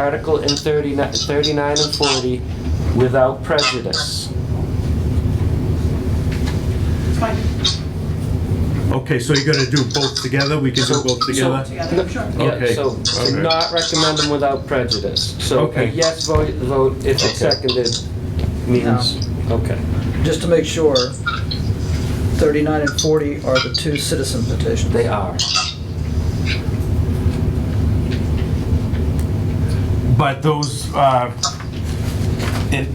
Article in 39 39 and 40 without prejudice. It's fine. Okay, so you're gonna do both together? We can do both together? Together, sure. Yeah, Okay, so all to right. not recommend them without prejudice. So a Okay. yes vote, vote if it's Okay. seconded means, okay. Just to make sure, 39 and 40 are the two citizen petitions. They are. But those, uh, it,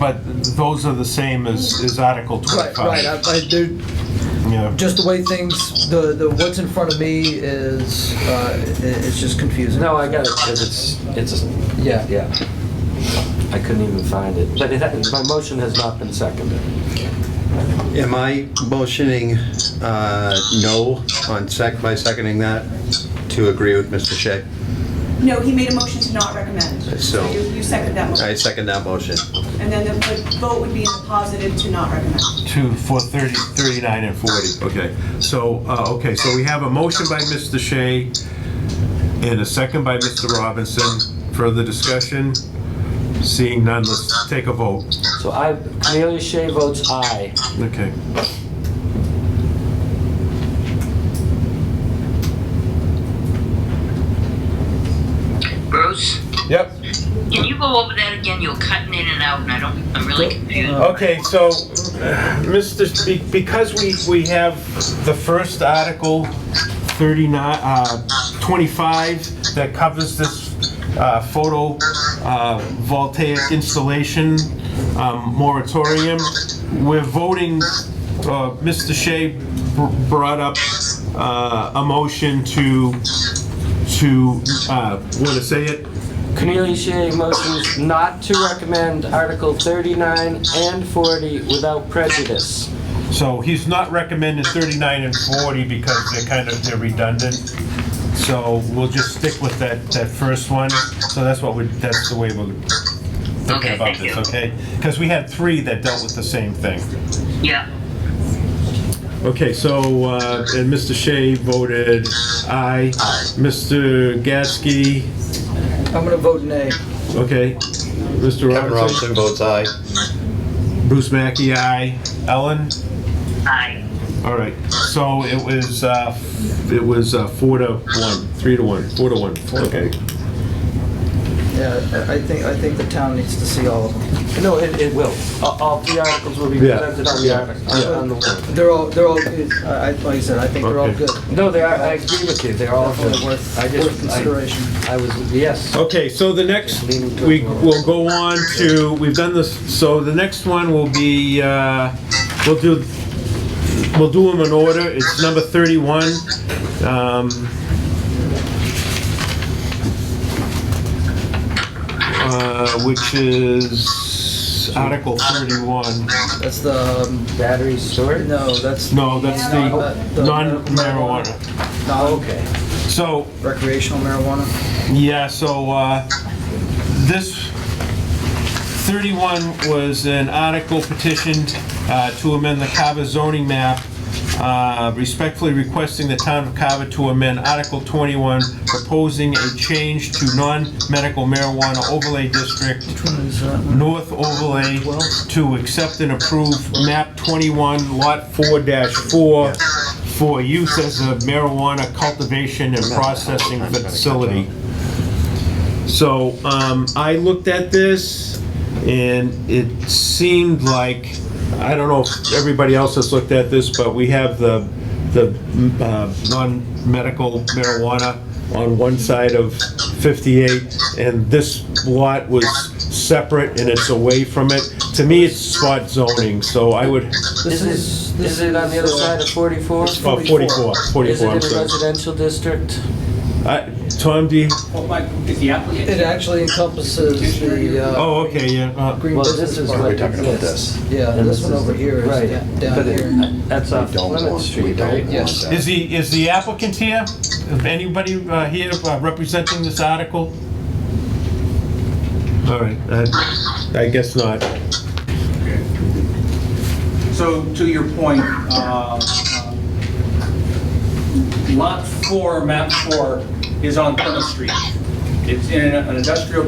but those are the same as, as Article Right, uh, twenty-five. right, I, I do, Yeah, just the way things, the, the, what's in front of me is, uh, i- it's just confusing. No, I got it, 'cause it's, it's, a- Yeah. yeah. I couldn't even find it, but it, has- my motion has not been seconded. Am I motioning uh, no on sec, by seconding that, to agree with Mr. Shea? No, he made a motion to not recommend. So- you you second that I motion. second that motion. And then the the vote would be in the positive to not recommend. two, four, thirty, thirty-nine, and forty, okay. So, uh, okay, so we have a motion by Mr. Shea and a second by Mr. Robinson. Further discussion? Seeing none, let's take a vote. So I, Cornelia Shea votes aye. Okay. Bruce, Yep. can you go over that again? You're cutting in and out, and I don't. I'm really confused. Okay, so, uh, Mr., Sh- be- because we, we have the first article, 39, uh, 25, that covers this uh, photo uh, voltaic installation um, moratorium, we're voting, uh, Mr. Shea br- brought up uh, a motion to, to, want to say it? Cornelia Shea motions not to recommend Article 39 and 40 without prejudice. So he's not recommending 39 and 40 because they're kind of, they're redundant. So we'll just stick with that, that first one. So that's what we, that's the way we're thinking Okay, about thank this, you. okay? Because we had three that dealt with the same thing. Yeah. Okay, so, uh, and Mr. Shea voted aye. Mr. Gasky, I'm gonna vote nay. okay. Mr. Kevin Robinson votes aye. Bruce Mackey, aye. Ellen? Aye. All right, so it was, uh, it was uh, four to one, three to one, four to one. Okay. Yeah, I- I think, I think the town needs to see all of them. No, it, it will. All- Uh, All three articles will be Yeah. presented on the, artic- on on the warrant. They're all, they're all, good. I, I- like I said, I think they're all Okay. good. No, they are, I agree with you, they're all good. Definitely worth, I just- worth consideration. I I was, yes. Okay, so the next, we will go on to, we've done this, so the next one will be, uh, we'll do, we'll do them in order. It's number 31. Um, uh, Which is Article 31. That's the, um, Battery storage? no, that's. No, that's Uh, the the- non-marijuana. No, okay. So, Recreational marijuana? Yeah, so uh, this 31 was an article petitioned uh, to amend the Carver zoning map, uh, respectfully requesting the town of Carver to amend Article 21, proposing a change to non-medical marijuana overlay district Which one is that? one? North Overlay to accept and approve map 21, lot 4-4, for use as a marijuana cultivation and processing facility. So um, I looked at this, and it seemed like, I don't know if everybody else has looked at this, but we have the, the uh, non-medical marijuana on one side of 58, and this lot was separate and it's away from it. To me, it's spot zoning, so I would, Is it, is uh, it on the other side of 44? Is oh, 44, 44, it I'm in a sorry. residential district? I- Tom, do you, It actually encompasses the, uh. oh, okay, yeah. uh, Green Well, this Business is Park. what exists. Yeah, And this one is- over here right, is da- down but it- here. That's off don't Lemon want- we Street, don't right? want Yes. Is the, is the applicant here? Is anybody uh, here uh, representing this article? All right, I- I guess not. So to your point, uh, lot four, map four, is on Plymouth Street. it's in an industrial